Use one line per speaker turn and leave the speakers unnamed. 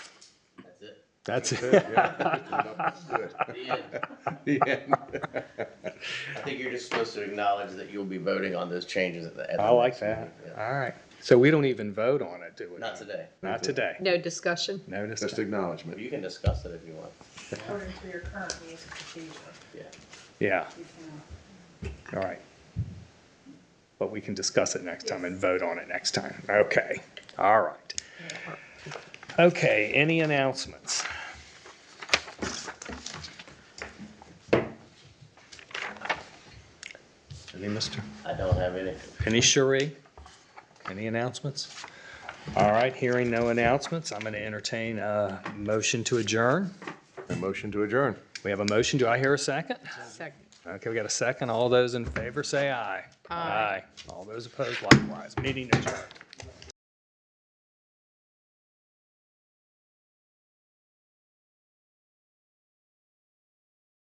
That's
That's
it.
it, yeah.
The end.
The end.
I think you're just supposed to acknowledge that you'll be voting on those changes at the end.
I like that. All right. So we don't even vote on it, do we?
Not today.
Not today.
No discussion?
Notice
Just
that.
acknowledgement.
You can discuss it if you want.
according to your current rules of procedure,
Yeah.
Yeah,
you can.
all right. But we can discuss it next time and vote on it next time. Okay, all right. Okay, any announcements? Any, Mr.?
I don't have any.
Any Cherie? Any announcements? All right, hearing no announcements, I'm going to entertain a motion to adjourn.
A motion to adjourn.
We have a motion. Do I hear a second?
Second.
Okay, we got a second. All those in favor say aye.
Aye.
All those opposed likewise. Meeting adjourned.